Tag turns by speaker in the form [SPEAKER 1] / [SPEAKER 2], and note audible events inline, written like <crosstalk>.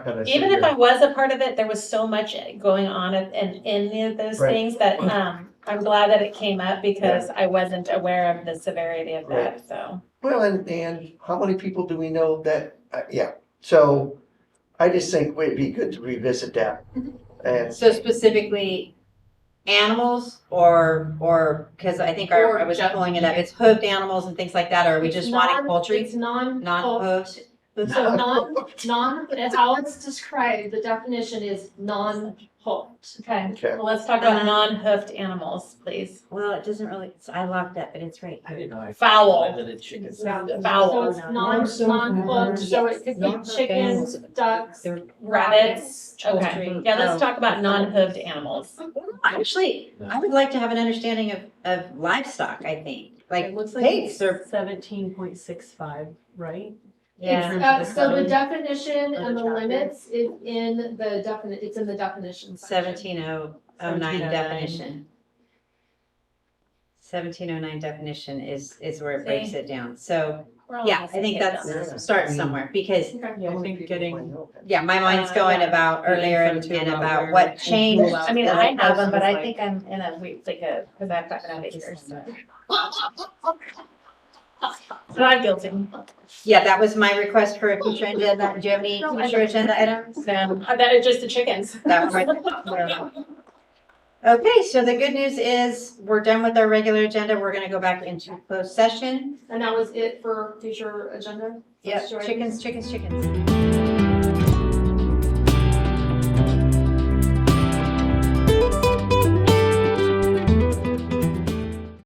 [SPEAKER 1] gonna sit
[SPEAKER 2] Even if I
[SPEAKER 1] here.
[SPEAKER 2] was a part of it, there was so much going on at- and in those
[SPEAKER 1] Right.
[SPEAKER 2] things that, um, I'm glad that it came up because I wasn't aware of the severity of that, so.
[SPEAKER 1] Well, and, and how many people do we know that, uh, yeah, so I just think it'd be good to revisit that.
[SPEAKER 2] Mm-hmm.
[SPEAKER 1] And,
[SPEAKER 3] So specifically animals or, or, because I think our,
[SPEAKER 4] Or
[SPEAKER 3] I was
[SPEAKER 4] just-
[SPEAKER 3] pulling it up, it's hoofed animals and things like that, or are we just wanting
[SPEAKER 4] Non-
[SPEAKER 3] poultry? uh,
[SPEAKER 4] It's non.
[SPEAKER 3] Non-hoofed? <laughs>
[SPEAKER 4] So non, non, that's how it's described, the definition is non-hooked.
[SPEAKER 2] Okay,
[SPEAKER 1] okay,
[SPEAKER 2] well, let's talk about non-hoofed animals, please.
[SPEAKER 3] Well, it doesn't really, it's- I locked up, but it's right
[SPEAKER 5] I
[SPEAKER 3] here.
[SPEAKER 5] didn't know. I
[SPEAKER 2] Fowl.
[SPEAKER 5] That it's chickens.
[SPEAKER 6] Yeah.
[SPEAKER 4] So
[SPEAKER 2] Fowl,
[SPEAKER 4] it's non,
[SPEAKER 6] Yes.
[SPEAKER 4] non-hooked, so it could be
[SPEAKER 6] Non-hooked
[SPEAKER 4] chickens,
[SPEAKER 6] animals.
[SPEAKER 4] ducks,
[SPEAKER 6] They're-
[SPEAKER 2] rabbits, okay,
[SPEAKER 3] Poultry.
[SPEAKER 2] yeah, let's
[SPEAKER 3] Oh.
[SPEAKER 2] talk about non-hoofed animals.
[SPEAKER 3] Actually, I would like to have an understanding of, of livestock, I think, like
[SPEAKER 6] It looks like
[SPEAKER 3] pigs or.
[SPEAKER 6] seventeen point six five, right?
[SPEAKER 2] Yeah,
[SPEAKER 6] terms
[SPEAKER 4] Uh,
[SPEAKER 6] of the
[SPEAKER 4] so the
[SPEAKER 6] code
[SPEAKER 4] definition and the
[SPEAKER 6] chapter.
[SPEAKER 4] limits is in the definite, it's in the definition section.
[SPEAKER 3] Seventeen oh oh nine
[SPEAKER 6] 1709.
[SPEAKER 3] definition. Seventeen oh nine definition is, is where it breaks
[SPEAKER 2] See?
[SPEAKER 3] it down, so,
[SPEAKER 2] We're all
[SPEAKER 3] yeah,
[SPEAKER 2] on
[SPEAKER 3] I
[SPEAKER 2] the
[SPEAKER 3] think
[SPEAKER 2] same page on that.
[SPEAKER 3] that's, start somewhere, because
[SPEAKER 4] Okay.
[SPEAKER 6] Yeah,
[SPEAKER 1] How
[SPEAKER 6] I
[SPEAKER 1] many
[SPEAKER 6] think
[SPEAKER 1] people do I
[SPEAKER 6] getting,
[SPEAKER 1] know that?
[SPEAKER 3] Yeah, my mind's
[SPEAKER 2] Uh,
[SPEAKER 3] going
[SPEAKER 2] yeah.
[SPEAKER 3] about earlier and
[SPEAKER 6] Something
[SPEAKER 3] and
[SPEAKER 6] about
[SPEAKER 3] about
[SPEAKER 6] where
[SPEAKER 3] what
[SPEAKER 6] we
[SPEAKER 3] changed.
[SPEAKER 6] pull out
[SPEAKER 2] I mean,
[SPEAKER 3] as
[SPEAKER 2] I
[SPEAKER 3] opposed
[SPEAKER 2] have them,
[SPEAKER 3] to
[SPEAKER 2] but I
[SPEAKER 3] like-
[SPEAKER 2] think I'm in a week, like a, cause I've gotten out of here, so. But I'm guilty.
[SPEAKER 3] Yeah, that was my request for a
[SPEAKER 2] <laughs>
[SPEAKER 3] future agenda. Do you have any
[SPEAKER 4] No, I
[SPEAKER 3] future agenda items?
[SPEAKER 2] So, I bet it's just the chickens. <laughs>
[SPEAKER 3] That was my- Okay, so the good news is we're done with our regular agenda. We're gonna go back into closed session.
[SPEAKER 4] And that was it for future agenda?
[SPEAKER 3] Yep,
[SPEAKER 4] Sure.
[SPEAKER 3] chickens, chickens, chickens.